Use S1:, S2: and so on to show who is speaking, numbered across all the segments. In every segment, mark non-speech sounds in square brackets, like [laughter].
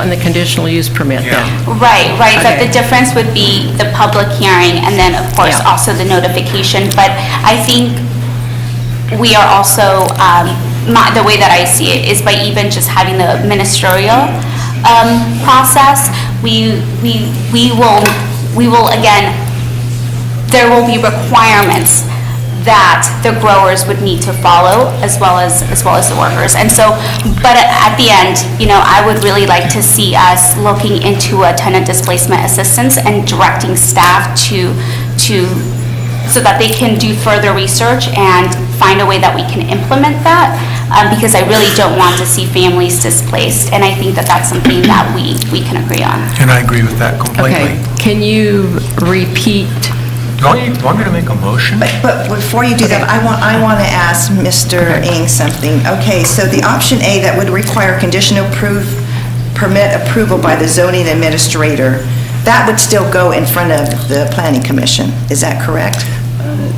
S1: on the conditional use permit then?
S2: Right, right, but
S1: Okay.
S2: the difference would be the public hearing and then, of course,
S1: Yeah.
S2: also the notification. But I think we are also, um, my, the way that I see it is by even just having the ministerial um, process, we, we, we will, we will again, there will be requirements that the growers would need to follow as well as, as well as the workers. And so, but at the end, you know, I would really like to see us looking into a tenant displacement assistance and directing staff to, to, so that they can do further research and find a way that we can implement that, um, because I really don't want to see families displaced. And I think that that's something that we, we can agree on.
S3: And I agree with that completely.
S1: Okay, can you repeat
S3: Don't Oh, you want me to make a motion?
S4: But, but before you do that, I want, I want to ask Mr. Ng something. Okay, so the option A that would require conditional proof, permit approval by the zoning administrator, that would still go in front of the planning commission, is that correct?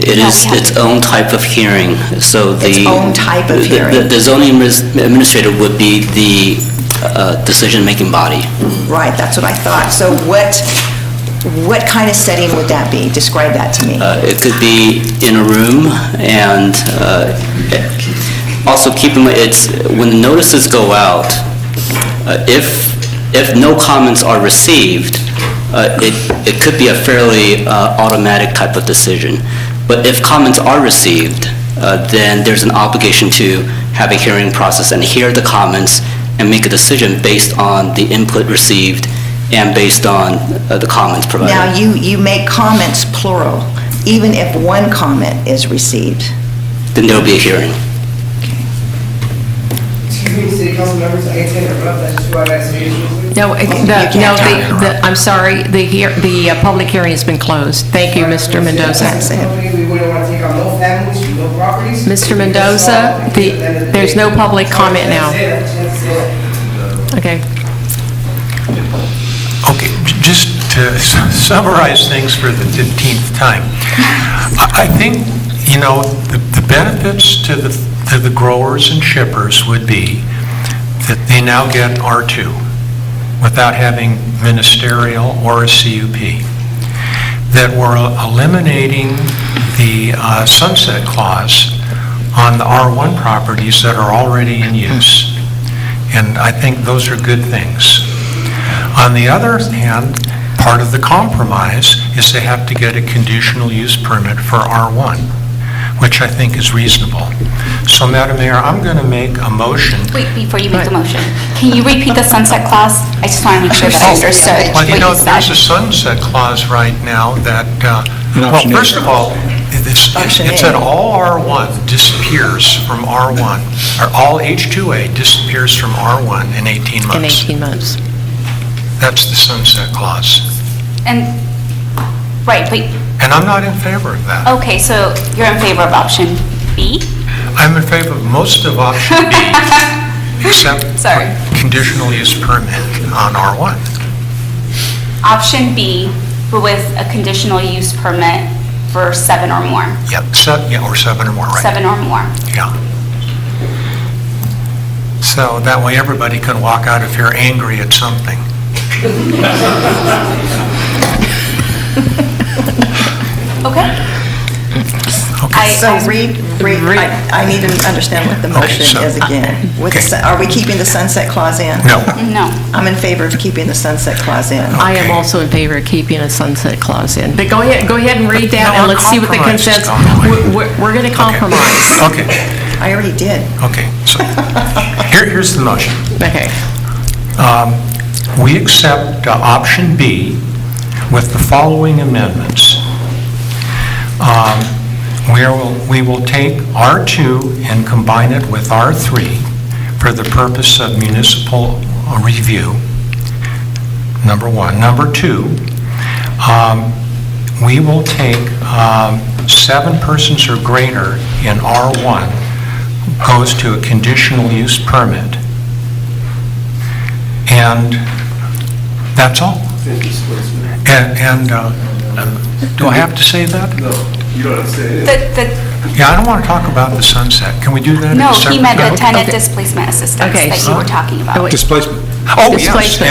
S5: It is
S2: Yeah.
S5: its own type of hearing, so the...
S4: Its own type of
S5: the- the-
S4: hearing.
S5: The zoning adminis- administrator would be the uh, decision-making body.
S4: Right, that's what I thought. So what, what kind of setting would that be? Describe that to me.
S5: Uh, It could be in a room, and uh, also keep in mind, it's, when the notices go out, uh, if, if no comments are received, uh, it, it could be a fairly uh, automatic type of decision. But if comments are received, uh, then there's an obligation to have a hearing process and hear the comments and make a decision based on the input received and based on uh, the comments provided.
S4: Now, you, you make comments plural, even if one comment is received.
S5: Then there'll be a hearing.
S6: Excuse me, city council members, I can interrupt, I just want to ask you.
S1: No, it-
S4: You
S1: the,
S4: can't
S1: no,
S4: talk.
S1: the- the, I'm sorry, the, hear- the uh, public hearing has been closed. Thank you, Mr.
S4: That's
S1: Mendoza.
S4: it.
S6: We wouldn't want to take on no families, no properties.
S1: Mr. Mendoza, the- there's no public comment now.
S6: That's it, that's it.
S1: Okay.
S3: Okay, j- just to s- summarize things for the 15th time, I I think, you know, the the benefits to the, to the growers and shippers would be that they now get R2 without having ministerial or a CUP, that we're eliminating the uh, sunset clause on the R1 properties that are already in use. And I think those are good things. On the other hand, part of the compromise is they have to get a conditional use permit for R1, which I think is reasonable. So, Madam Mayor, I'm going to make a motion.
S2: Wait, before you make the motion, can you repeat the sunset clause? I just want to make sure that I
S1: Oh,
S2: understood
S3: Well,
S2: what
S3: you know,
S2: you
S3: there's a
S2: said.
S3: sunset clause right now that, uh, well, first of all, it's
S4: Option
S3: it
S4: A.
S3: said all R1 disappears from R1, or all H2A disappears from R1 in 18
S1: In
S3: months.
S1: 18 months.
S3: That's the sunset clause.
S2: And, right, but,
S3: And I'm not in favor of that.
S2: okay, so you're in favor of option B?
S3: I'm in favor of most of option
S2: [laughs]
S3: B, except
S2: Sorry.
S3: for conditional use permit on R1.
S2: Option B with a conditional use permit for seven or more,
S3: Yep, se- yeah, or seven or more, right?
S2: seven or more.
S3: Yeah. So that way, everybody can walk out if you're angry at something.
S2: Okay? I-
S4: So
S2: I-
S4: read, read, I I need to understand what the
S3: Okay,
S4: motion
S3: so- uh,
S4: is again. With the
S3: Okay.
S4: sun- Are we keeping the sunset clause in?
S3: No.
S2: No.
S4: I'm in favor of keeping the sunset clause in.
S1: I am
S3: Okay.
S1: also in favor of keeping a sunset clause in. But go ahead, go ahead and read that,
S3: No,
S1: and
S3: we're
S1: let's see what the
S3: compromised,
S1: consensus,
S3: Donna.
S1: we're- we're, we're going to compromise.
S3: Okay,
S4: I already did.
S3: okay. So here- here's the motion.
S1: Okay.
S3: Um, We accept uh, option B with the following amendments. Um, We will, we will take R2 and combine it with R3 for the purpose of municipal uh, review, number one. Number two, um, we will take um, seven persons or greater in R1 goes to a conditional use permit. And that's all. And, and, uh, do I have to say that?
S2: The, the,
S3: Yeah, I don't want to talk about the sunset. Can we do that? at a
S2: no, he
S3: separate-
S2: meant the tenant
S1: Okay.
S2: displacement assistance
S1: Okay,
S2: that you
S1: so-
S2: were talking about.
S1: Oh, wait.
S3: Oh, yes.
S1: Displacement.